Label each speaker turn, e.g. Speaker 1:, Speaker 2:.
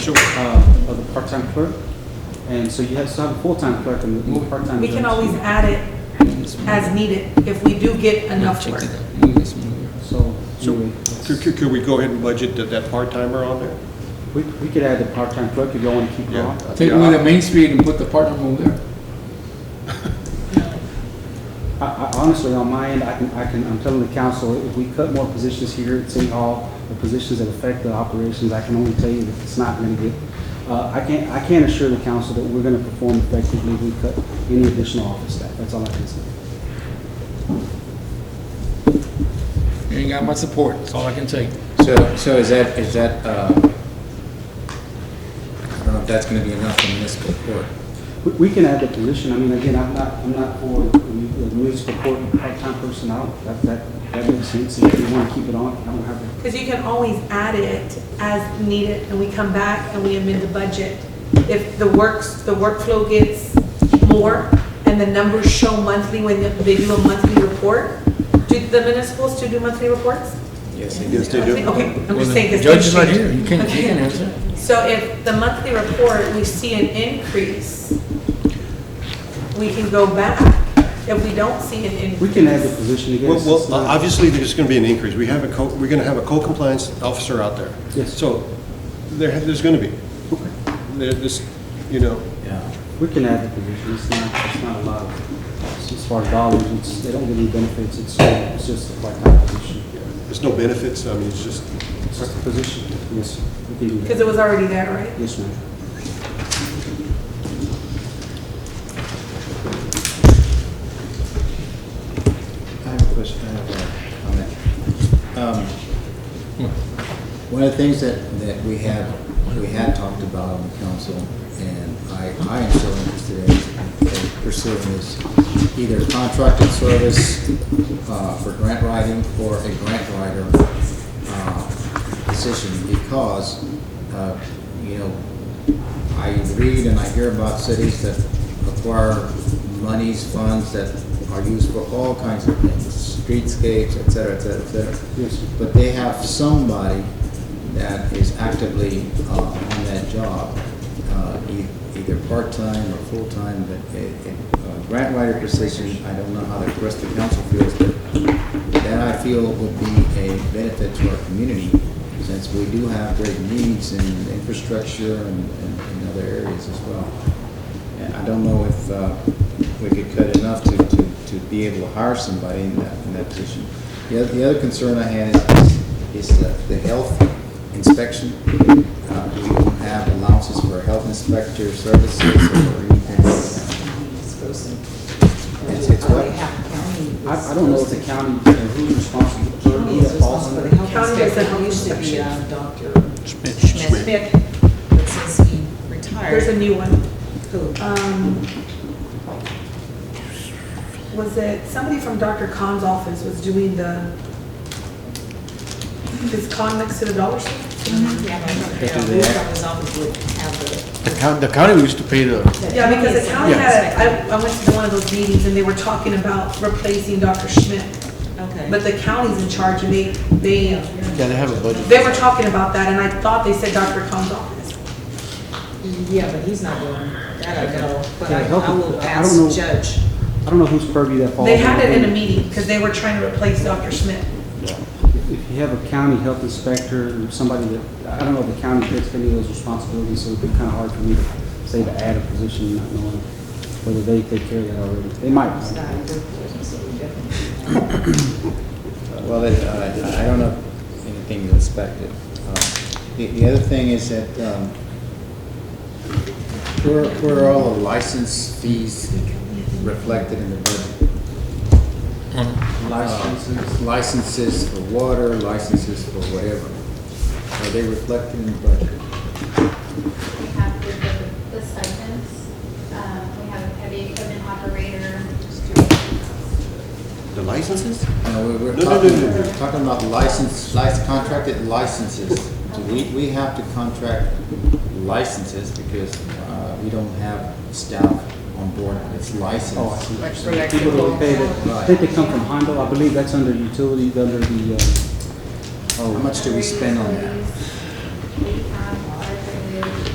Speaker 1: short uh, of the part-time clerk. And so you have to have a full-time clerk and the part-time.
Speaker 2: We can
Speaker 1: judge.
Speaker 2: always add it as needed if we do get enough work.
Speaker 1: So,
Speaker 3: So,
Speaker 1: anyway,
Speaker 3: Could, could- could we go ahead and budget that- that part-timer on there?
Speaker 1: we, we could add the part-time clerk if you want to keep her
Speaker 3: Yeah.
Speaker 1: on.
Speaker 4: Take away the Main Street and put the part on there.
Speaker 1: I, I honestly, on my end, I can, I can, I'm telling the council, if we cut more positions here at City Hall, the positions that affect the operations, I can only tell you that it's not gonna get, uh, I can't, I can't assure the council that we're gonna perform effectively if we cut any additional office staff, that's all I can say.
Speaker 4: You ain't got my support, that's all I can take.
Speaker 5: So, so is that, is that, uh, I don't know if that's gonna be enough in municipal court.
Speaker 1: We, we can add the position, I mean, again, I'm not, I'm not for the mu- the municipal court part-time personnel, that, that, that makes sense, if you wanna keep it on, I don't have, a-
Speaker 2: Because you can always add it as needed, and we come back and we amend the budget. If the works, the workflow gets more, and the numbers show monthly when they do a monthly report, do the municipals still do monthly reports?
Speaker 5: Yes, they
Speaker 3: Yes, they do.
Speaker 2: Okay, I'm just saying. 'cause
Speaker 4: Judge is not
Speaker 2: things
Speaker 4: here, you
Speaker 2: change.
Speaker 4: can, not you can
Speaker 2: Okay.
Speaker 4: answer.
Speaker 2: So if the monthly report, we see an increase, we can go back. If we don't see an increase.
Speaker 1: we can add the position again.
Speaker 3: Well,
Speaker 1: it's
Speaker 3: well,
Speaker 1: not-
Speaker 3: obviously, there's going to be an increase. We have a, co- we're going to have a co-compliance officer out there.
Speaker 1: Yes.
Speaker 3: So there, there's going to be. There, this, you know,
Speaker 5: Yeah.
Speaker 1: We can add the position, it's not, it's not a lot, of- as far as dollars, it's, they don't get any benefits, it's, it's just a part-time position.
Speaker 3: there's no benefits, I mean, it's just,
Speaker 1: It's just a position, yes, sir. we can do that.
Speaker 2: Because it was already there, right?
Speaker 1: Yes, ma'am.
Speaker 5: I have a question, I have a comment. Um, One of the things that, that we have, we had talked about on the council, and I, I am so interested in in pursuing is either contracted service uh, for grant writing or a grant writer uh, position, because, uh, you know, I read and I hear about cities that acquire monies, funds that are used for all kinds of things, streetscapes, et cetera, et cetera, et cetera.
Speaker 1: Yes, sir.
Speaker 5: But they have somebody that is actively uh, on that job, uh, e- either part-time or full-time, but a a- a grant writer position, I don't know how the rest of the council feels, but that I feel would be a benefit to our community, since we do have great needs in infrastructure and and- and other areas as well. And I don't know if uh, we could cut enough to, to, to be able to hire somebody in that, in that position. The other, the other concern I had is, is the, the health inspection. Uh, we don't have allowances for health inspector services or anything. It's, it's what?
Speaker 1: I, I don't know if the county, uh, who's responsible,
Speaker 2: Oh.
Speaker 6: County is
Speaker 1: who's
Speaker 6: responsible for the
Speaker 1: responsible?
Speaker 6: health
Speaker 2: County does the health
Speaker 6: inspection. It used to be
Speaker 2: inspection.
Speaker 6: uh, Dr.
Speaker 3: Schmidt.
Speaker 6: Smith, but since he
Speaker 2: There's a
Speaker 6: retired,
Speaker 2: new one.
Speaker 6: who?
Speaker 2: Um, Was it, somebody from Dr. Khan's office was doing the, is Khan next to the dollar store?
Speaker 6: Yeah, I remember Harold Wolf from his office would have the.
Speaker 7: The county, the county used to pay the,
Speaker 2: Yeah, because the county had, I, I went to one of those meetings and they were talking about replacing Dr. Schmidt.
Speaker 6: Okay.
Speaker 2: But the county's in charge and they, they,
Speaker 7: yeah, they have a budget.
Speaker 2: they were talking about that and I thought they said Dr. Khan's office.
Speaker 6: Yeah, but he's not doing that, I know, but
Speaker 1: Yeah,
Speaker 6: I
Speaker 1: health-
Speaker 6: I will
Speaker 1: I don't know.
Speaker 6: ask Judge.
Speaker 1: I don't know whose purview that falls.
Speaker 2: They had it in
Speaker 1: under.
Speaker 2: a meeting because they were trying to replace Dr. Schmidt.
Speaker 1: If you have a county health inspector, or somebody that, I don't know if the county takes any of those responsibilities, so it'd be kind of hard for me to say to add a position, not knowing whether they take care of that already. They might.
Speaker 6: It's not a good position, so we definitely-
Speaker 5: Well, it, uh, I don't know if anything is inspected. Uh, The, the other thing is that, um, where, where are all the license fees reflected in the budget?
Speaker 1: Licenses.
Speaker 5: Uh, Licenses for water, licenses for whatever. Are they reflected in the budget?
Speaker 8: We have the, the- the stipends, um, we have heavy equipment operator.
Speaker 3: the licenses?
Speaker 5: No, we- we're
Speaker 3: No, no, no,
Speaker 5: talking,
Speaker 3: no, no.
Speaker 5: we're talking about license, lic- contracted licenses. So we, we have to contract licenses because uh, we don't have staff on board that's
Speaker 1: Oh, I
Speaker 5: licensed.
Speaker 1: see. People that we pay that, I think they come from Hondo, I believe that's under utilities, under the, uh,
Speaker 5: How
Speaker 1: oh,
Speaker 5: much do we spend on that?